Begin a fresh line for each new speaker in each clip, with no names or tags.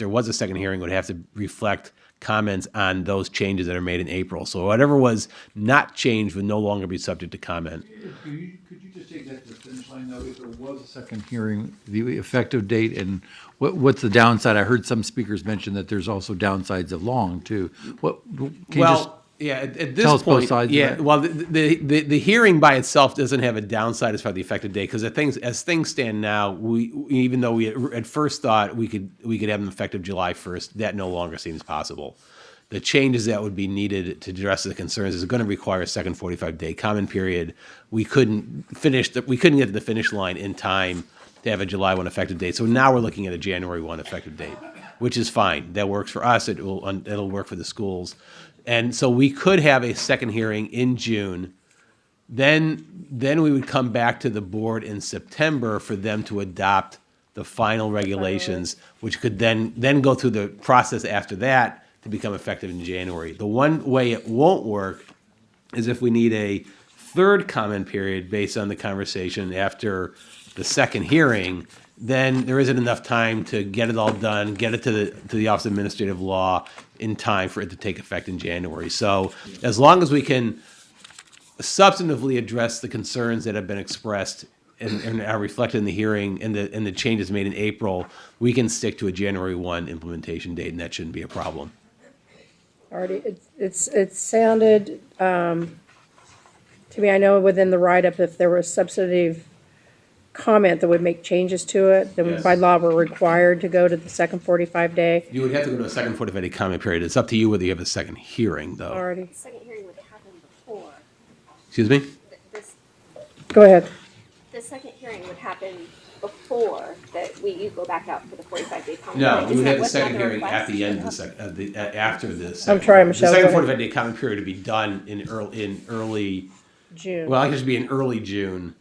there was a second hearing, would have to reflect comments on those changes that are made in April. So whatever was not changed would no longer be subject to comment.
Could you, could you just take that to the finish line, though, if there was a second hearing, the effective date and what, what's the downside? I heard some speakers mention that there's also downsides of long, too. What, can you just?
Well, yeah, at, at
tell
this
us both
point,
sides of
yeah.
that?
Well, the, the the the hearing by itself doesn't have a downside as far as the effective date because things as things stand now, we even though we at, at first thought we could we could have them effective July first, that no longer seems possible. The changes that would be needed to address the concerns is going to require a second 45 day comment period. We couldn't finish the, we couldn't get to the finish line in time to have a July 1 effective date. So now we're looking at a January 1 effective date, which is fine. That works for us. It will, it'll work for the schools. And so we could have a second hearing in June. Then, then we would come back to the board in September for them to adopt the final regulations, which could then, then go through the process after that to become effective in January. The one way it won't work is if we need a third comment period based on the conversation after the second hearing, then there isn't enough time to get it all done, get it to the, to the Office of Administrative Law in time for it to take effect in January. So as long as we can substantively address the concerns that have been expressed and, and are reflected in the hearing and the, and the changes made in April, we can stick to a January one implementation date and that shouldn't be a problem.
Already, it's- it's, it sounded, um, to me, I know within the write-up, if there was substantive comment that would make changes to it, then
Yes.
by law, we're required to go to the second forty-five day
You would have to go to a second forty-five day comment period. It's up to you whether you have a second hearing though.
already.
second hearing would happen before,
Excuse me?
th- this,
Go ahead.
the second hearing would happen before that we, you go back out for the forty-five day comment.
No,
period.
we
Is
would
that
have the
what's
second
on
hearing at
request?
the end of the sec, of the, a- after this.
trying, Michelle,
The
go
second
ahead.
forty-five day comment period would be done in early, in early,
June.
well, I guess it'd be in early June.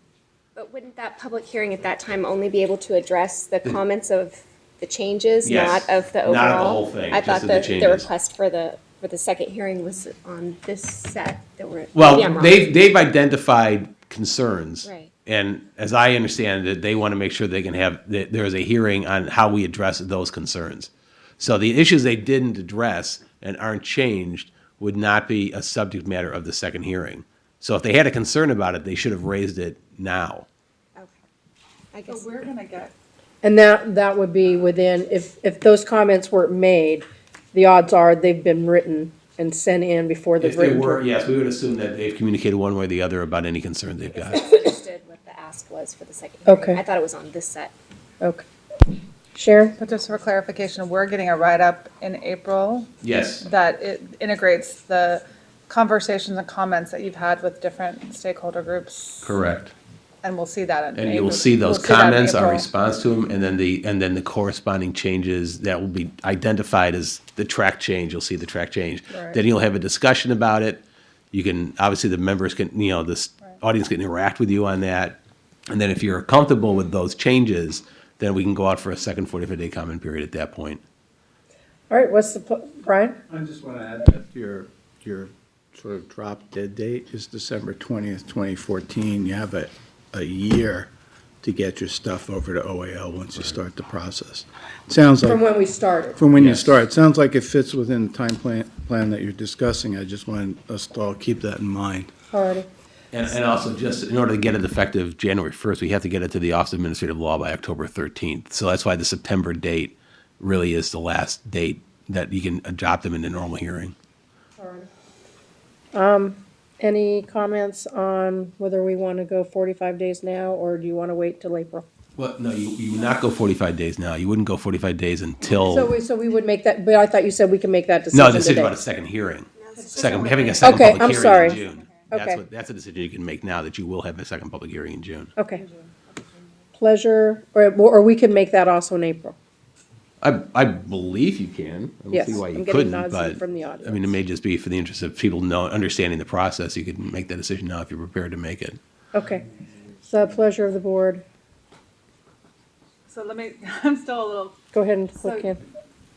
But wouldn't that public hearing at that time only be able to address the comments of the changes,
Yes.
not of the
Not of
overall?
the whole thing,
I
just
thought
of the
that the
changes.
request for the, for the second hearing was on this set that we're, maybe I'm
Well,
wrong.
they've, they've identified concerns.
Right.
And as I understand it, they want to make sure they can have, that there is a hearing on how we address those concerns. So the issues they didn't address and aren't changed would not be a subject matter of the second hearing. So if they had a concern about it, they should have raised it now.
Okay. I
But
guess,
we're gonna get,
And that, that would be within, if, if those comments weren't made, the odds are they've been written and sent in before the
If they
written.
were, yes, we would assume that they've communicated one way or the other about any concern they've got.
I understood what the ask was for the second hearing.
Okay.
I thought it was on this set.
Okay. Sharon?
but just for clarification, we're getting a write-up in April
Yes.
that it integrates the conversations and comments that you've had with different stakeholder groups.
Correct.
And we'll see that in.
And you
April.
will see those
We'll that in
comments, our
April.
response to them, and then the, and then the corresponding changes that will be identified as the track change. You'll see the track change.
Right.
Then you'll have a discussion about it. You can, obviously, the members can, you know, this audience can interact with you on that. And then if you're comfortable with those changes, then we can go out for a second forty-five day comment period at that point.
All right, what's the, pl- Brian?
I just want to add that your, your sort of drop dead date is December 20th, 2014. You have a, a year to get your stuff over to OAL once you start the process. Sounds
From
like,
when we started.
from when you start, sounds like it fits within the time plan, plan that you're discussing. I just want us to all keep that in mind.
Already.
And, and also just in order to get it effective January first, we have to get it to the Office of Administrative Law by October thirteenth. So that's why the September date really is the last date that you can adopt them in the normal hearing.
Um, Any comments on whether we want to go 45 days now, or do you want to wait till April?
Well, no, you, you would not go forty-five days now. You wouldn't go forty-five days
So
until,
we, so we would make that, but I thought you said we can make that decision
Oh. no,
today.
decision about a second hearing. Second, having a second
Okay, I'm
public hearing
sorry.
in June. That's
Okay.
what, that's a decision you can make now that you will have a second public hearing in June.
Okay. Pleasure, or, or we can make that also in April.
I, I believe you can. I don't
Yes,
see why you
I'm getting
couldn't,
nods
but,
from the
I mean, it
audience.
may just be for the interest of people know, understanding the process, you could make that decision now if you're prepared to make it.
Okay. It's the pleasure of the board.
So let me, I'm still a little,
Go ahead and
So-
click in.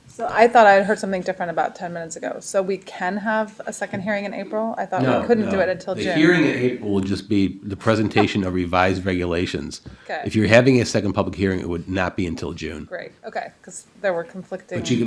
So I thought I had heard something different about ten minutes ago. So we can have a second hearing in April? I thought Uh, we couldn't do it until
the
June.
hearing in April will just be the presentation of revised regulations.
Okay.
If you're having a second public hearing, it would not be until June.
Great, okay, because there were conflicting.
But you